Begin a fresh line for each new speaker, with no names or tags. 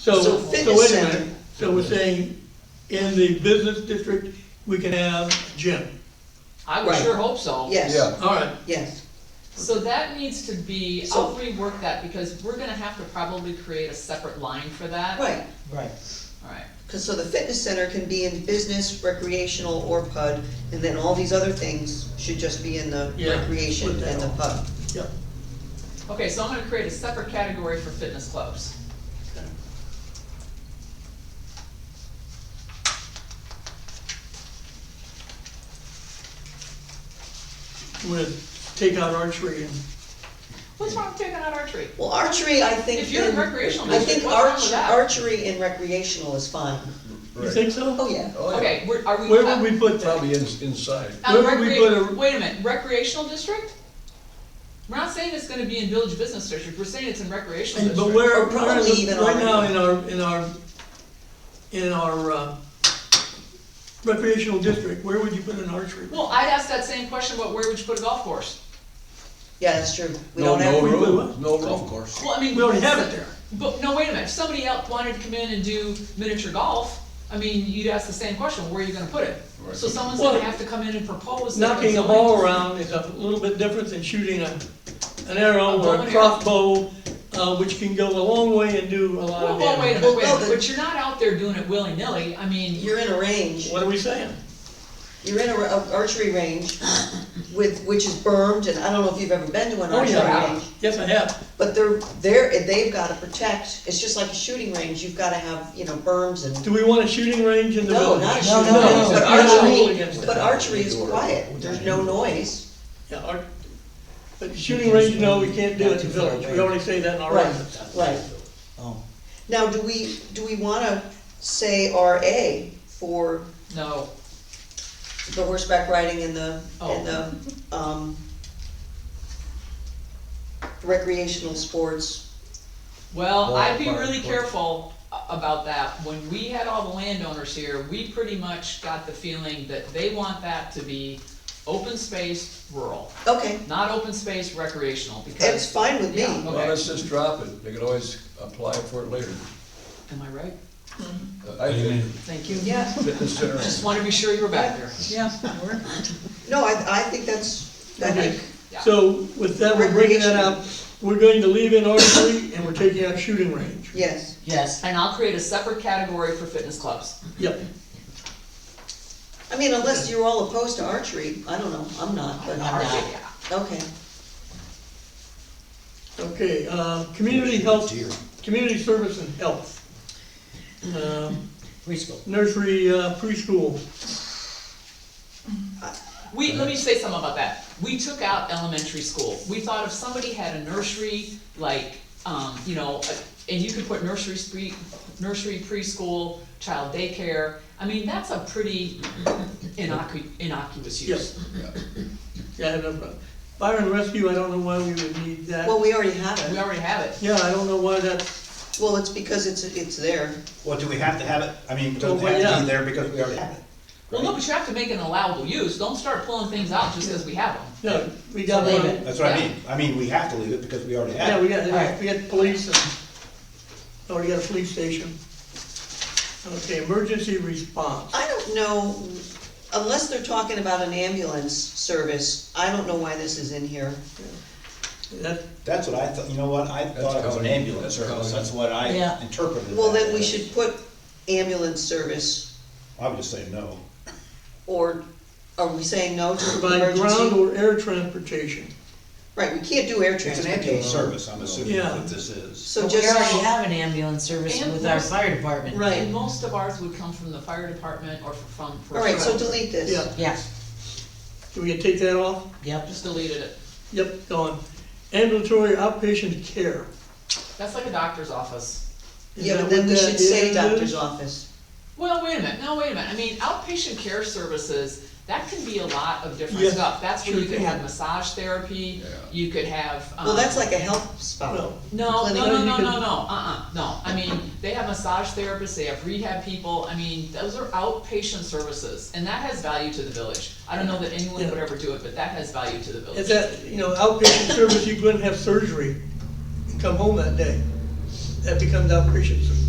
So,
So
so
fitness
wait a
center-
minute, so we're saying in the business district, we can have gym,
I would
Right.
sure hope so.
Yes,
Yeah.
all right,
yes,
So that needs to be,
So-
I'll rework that, because we're gonna have to probably create a separate line for that.
right.
Right.
Alright,
Cause so the fitness center can be in business, recreational, or PUD, and then all these other things should just be in the
Yeah,
recreation
put that
and the
on.
PUD.
yep.
okay, so I'm gonna create a separate category for fitness clubs.
We're gonna take out archery and,
What's wrong with taking out archery?
Well, archery, I think.
If you're in
in-
recreational
I
district,
think
what's wrong with
arch-
that?
archery and recreational is fine.
you
Right.
think so?
Oh, yeah.
Oh, yeah.
Okay, we're, are we?
Where would we put that?
Probably in- inside.
Uh,
where would we
recre-
put a-
Wait a minute, recreational district? We're not saying it's gonna be in village business district, we're saying it's in recreational
And- But
district.
where,
Or probably
where is it-
even
right now
already.
in our, in our, in our uh, recreational district, where would you put an archery?
Well, I'd ask that same question, but where would you put a golf course?
Yeah, that's true. We
No,
don't have.
no
we- we-
room, no golf course.
Well, I mean.
We already have it there.
But, no, wait a minute, if somebody else wanted to come in and do miniature golf, I mean, you'd ask the same question, where are you gonna put it?
Right.
So someone's gonna
Well,
have to come in and propose. that
Knocking a
it's
ball
going-
around is a little bit different than shooting a, an arrow
A bow
or
and
a
arrow.
crossbow, uh, which can go a long way and do a lot
Well,
of
well, wait
damage.
a minute, wait a
Well,
minute,
the-
but you're not out there doing it willy-nilly, I mean,
You're in a range.
What are we saying?
You're in a, a archery range with, which is bermed, and I don't know if you've ever been to an
Oh,
archery
yeah.
range.
Yes, I have.
But they're, they're, they've gotta protect, it's just like a shooting range, you've gotta have, you know, berms and.
Do we want a shooting range in the
No,
village?
not a
No,
shooting
no,
range,
no.
but
I don't rule against
archery,
it.
but archery is quiet, there's no noise.
Yeah, our- But shooting range, no, we can't do it in the village, we already say that in our
Right,
ordinance.
right.
Oh.
Now, do we, do we wanna say RA for
no,
the horseback riding and the, and
Oh.
the, um, recreational sports?
well,
Well,
I'd be
well,
really
well.
careful a- about that, when we had all the landowners here, we pretty much got the feeling that they want that to be open space rural,
Okay,
not open space recreational,
that's
because,
fine with me.
Yeah.
Well,
Okay.
let's just drop it, they could always apply for it later.
am I right?
Uh, I think
Thank you.
Yeah,
fitness center.
Just wanted to be sure you were back there.
yeah, we're-
No, I, I think that's, I
Okay.
think,
Yeah.
So with that, we're bringing that up, we're going to leave in archery and we're taking out shooting range.
yes,
yes,
And I'll create a separate category for fitness clubs.
Yep,
I mean, unless you're all opposed to archery, I don't know, I'm not, but,
I'm not.
okay,
okay, um, community health, community service and health. Um,
preschool.
Nursery uh, preschool,
We, let me say something about that. We took out elementary school. We thought if somebody had a nursery, like, um, you know, and you could put nursery spree, nursery preschool, child daycare, I mean, that's a pretty innocu- innocuous use.
yeah, I have no problem. Fire and rescue, I don't know why we would need that.
well, we already have
We
it,
already have it.
Yeah, I don't know why that's,
well, it's because it's, it's there.
Well, do we have to have it? I mean,
Well,
does it
well,
have to
yeah.
be there because we already have it?
Well, no, but you have to make an allowable use. Don't start pulling things out just because we have them.
no, we got
Leave
one,
it.
That's what I
Yeah.
mean. I mean, we have to leave it because we already
yeah,
have
we
it.
got,
Alright.
we got police and, already got a police station. Okay, emergency response.
I don't know, unless they're talking about an ambulance service, I don't know why this is in here.
That,
That's what I thought, you know what? I thought it was an
covered.
ambulance
That's
service.
covered.
That's what I
Yeah.
interpreted it
Well, then we
as.
should put ambulance service,
I would just say no.
or are we saying no to
By ground
emergency?
or air transportation.
Right, we can't do air
It's an ambulance
transportation,
service, I'm assuming
Yeah.
that this is.
so
But we
just.
already have an ambulance service
And
with our
most-
fire department.
Right.
And most of ours would come from the fire department or from, from.
All right, so delete this.
Yeah,
Yeah,
do we take that off?
yep.
Just deleted it.
Yep, gone. Ambulatory outpatient care.
That's like a doctor's office.
Is
Yeah,
that
but then
what
we
that
should say
is?
doctor's office.
Well, wait a minute, no, wait a minute, I mean, outpatient care services, that can be a lot of different
Yes,
stuff. That's where
sure
you could
can.
have massage therapy,
Yeah.
you could have, um.
Well, that's like a health spot.
Well,
No,
clinic.
no, no, no,
You
no,
could-
no, uh-uh, no, I mean, they have massage therapists, they have rehab people, I mean, those are outpatient services, and that has value to the village. I don't know that anyone
Yeah.
would ever do it, but that has value to the
is
village.
that, you know, outpatient service, you go and have surgery and come home that day. That becomes outpatient service.